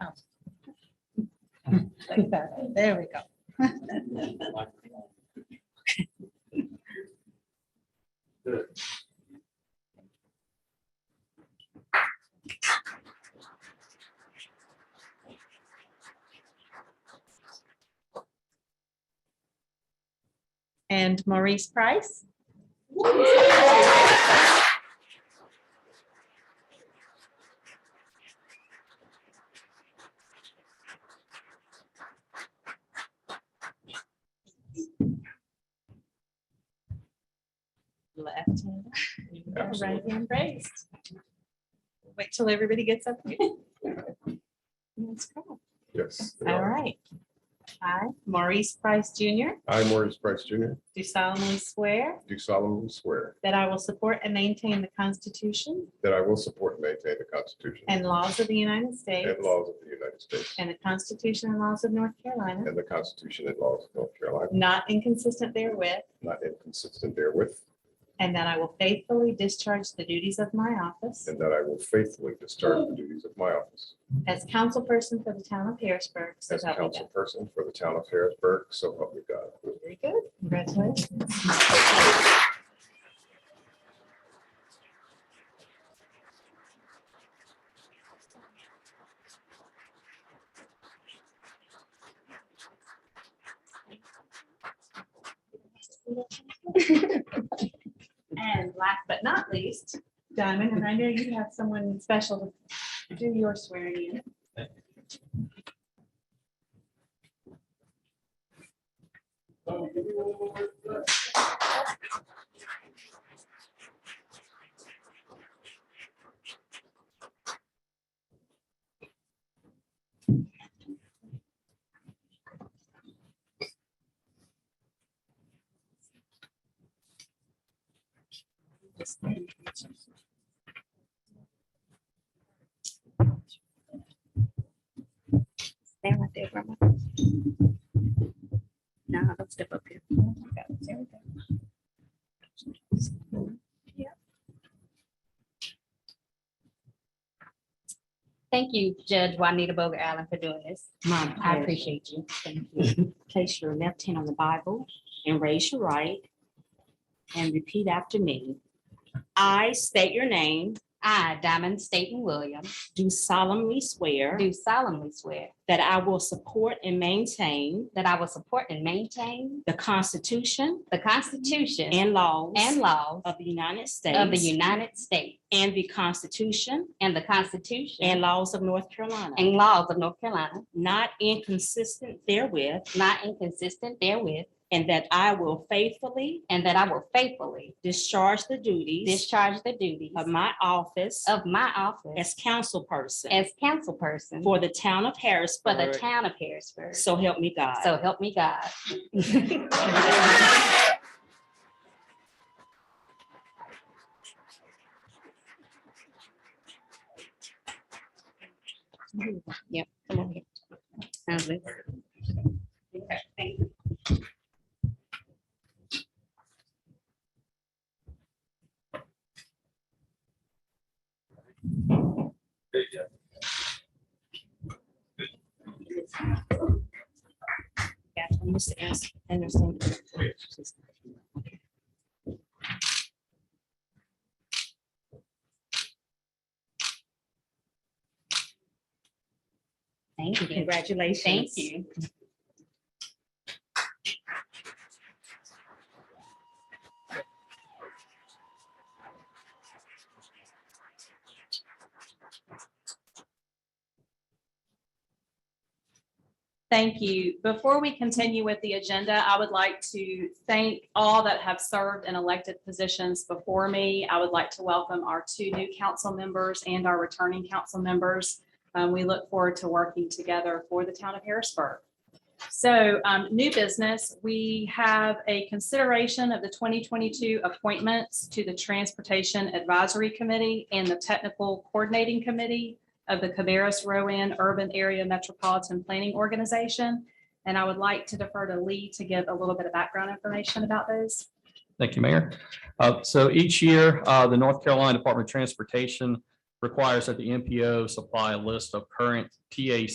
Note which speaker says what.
Speaker 1: pounds. Like that, there we go. And Maurice Price. Left hand. Right hand raised. Wait till everybody gets up. here. Let's go.
Speaker 2: Yes. they
Speaker 1: All
Speaker 2: are.
Speaker 1: right. I, Maurice Price Jr.,
Speaker 2: I, Maurice Price Jr.,
Speaker 1: do solemnly swear
Speaker 2: do solemnly swear
Speaker 1: that I will support and maintain the Constitution
Speaker 2: that I will support and maintain the Constitution
Speaker 1: and laws of the United States
Speaker 2: and laws of the United States
Speaker 1: and the Constitution and laws of North Carolina,
Speaker 2: and the Constitution and laws of North Carolina,
Speaker 1: not inconsistent therewith,
Speaker 2: not inconsistent therewith,
Speaker 1: and that I will faithfully discharge the duties of my office
Speaker 2: and that I will faithfully discharge the duties of my office
Speaker 1: as councilperson for the town of Harrisburg. So
Speaker 2: as
Speaker 1: help me God.
Speaker 2: councilperson for the town of Harrisburg, so help me God.
Speaker 1: Very good. Congratulations. And last but not least, Diamond, and I know you have someone special to do your swearing in.
Speaker 3: Stand right there, Grandma. Now, don't step up here.
Speaker 1: Oh
Speaker 3: Yep. Thank you, Judge Juanita Boger Allen, for doing this. I appreciate you. Thank you. Place your left hand on the Bible and raise your right and repeat after me. I state your name. I, Diamond Staten Williams. Do solemnly swear.
Speaker 4: Do solemnly swear
Speaker 3: That I will support and maintain
Speaker 4: that I will support and maintain
Speaker 3: the Constitution
Speaker 4: the Constitution
Speaker 3: and laws
Speaker 4: and laws
Speaker 3: of the United States
Speaker 4: of the United States
Speaker 3: and the Constitution
Speaker 4: and the Constitution
Speaker 3: and laws of North Carolina,
Speaker 4: and laws of North Carolina,
Speaker 3: not inconsistent therewith,
Speaker 4: not inconsistent therewith,
Speaker 3: and that I will faithfully
Speaker 4: and that I will faithfully
Speaker 3: discharge the duties
Speaker 4: discharge the duties
Speaker 3: of my office
Speaker 4: of my office
Speaker 3: as councilperson
Speaker 4: as councilperson
Speaker 3: for the town of
Speaker 4: for the
Speaker 3: Harrisburg.
Speaker 4: town of Harrisburg.
Speaker 3: So help me God.
Speaker 4: So help me God. Yep. come over here. Now, let's- Okay, thank you.
Speaker 3: Yeah, I'm just asking- Anderson.
Speaker 4: Thank you.
Speaker 3: Congratulations.
Speaker 4: Thank you.
Speaker 1: Thank you. Before we continue with the agenda, I would like to thank all that have served in elected positions before me. I would like to welcome our two new council members and our returning council members. Um, We look forward to working together for the town of Harrisburg. So um, new business, we have a consideration of the 2022 appointments to the Transportation Advisory Committee and the Technical Coordinating Committee of the Cabarrus Rowan Urban Area Metropolitan Planning Organization. And I would like to defer to Lee to give a little bit of background information about those.
Speaker 5: Thank you, Mayor. Uh, So each year, uh, the North Carolina Department of Transportation requires that the MPO supply a list of current TAC